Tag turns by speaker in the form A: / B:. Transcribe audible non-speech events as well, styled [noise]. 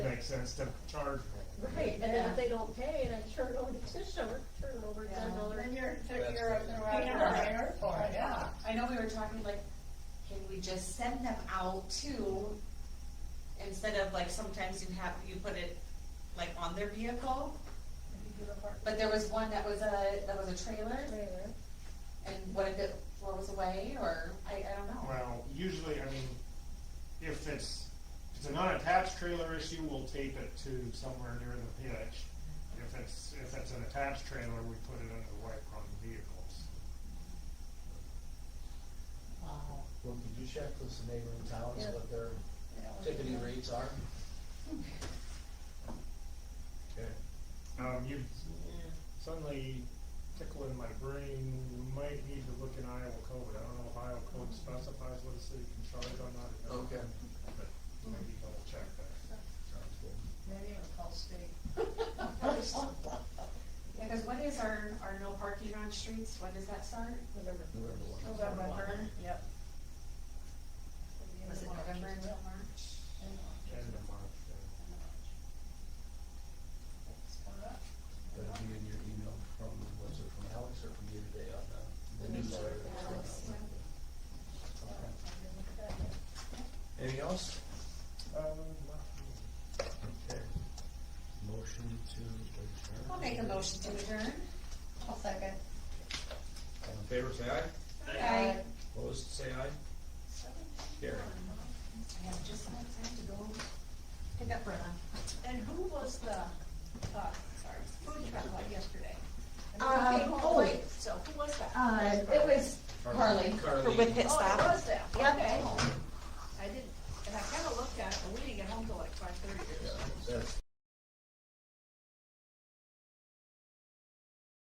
A: makes sense to charge more.
B: Right, and then
C: Yeah.
B: if they don't pay, and I turn over the tissue, or turn over ten dollars.
C: Then you're,
D: That's
C: you're,
D: great.
C: you're out of
B: Yeah.
C: there for it, yeah.
E: I know we were talking like, can we just send them out to, instead of like sometimes you have, you put it like on their vehicle? But there was one that was a, that was a trailer and what if it blows away or, I, I don't know.
A: Well, usually, I mean, if it's, if it's an unattached trailer issue, we'll tape it to somewhere near the hitch. If it's, if it's an attached trailer, we put it under the wiper on the vehicles.
C: Wow.
D: Well, could you check with some neighboring towns
B: Yeah.
D: what their
C: Yeah.
D: ticketing rates are? Okay.
A: Um, you suddenly tickling my brain, we might need to look in Iowa code, I don't know if Iowa code specifies what a city can charge on that.
D: Okay.
A: But maybe double check that.
D: Sounds good.
C: Maybe it'll
E: [laughs]
C: call state.
E: Yeah, cause what is our, our no parking on streets, when does that start?
B: November.
D: November one.
C: November, yep.
E: Was it November until March?
A: End of March, yeah.
D: That'll be in your email from, was it from Alex or from you today on the- the newsletter?
C: Alex,
D: Anything else?
A: Um, not-
D: Okay. Motion to adjourn.
E: I'll make a motion to adjourn.
C: I'll second.
D: All in favor, say aye.
E: Aye.
D: Opposed, say aye. Carry.
E: I have just enough time to go pick up Brenna.
C: And who was the, uh, sorry, who did you talk about yesterday?
E: Uh,
C: And who came home
E: oh.
C: late, So who was that?
E: Uh, it was Harley.
D: Carly.
E: With pit
C: Oh, it
E: stop.
C: was that,
E: Yep.
C: okay. I didn't, and I kinda looked at it, but we didn't get home till like five thirty or
D: Yeah.
C: something.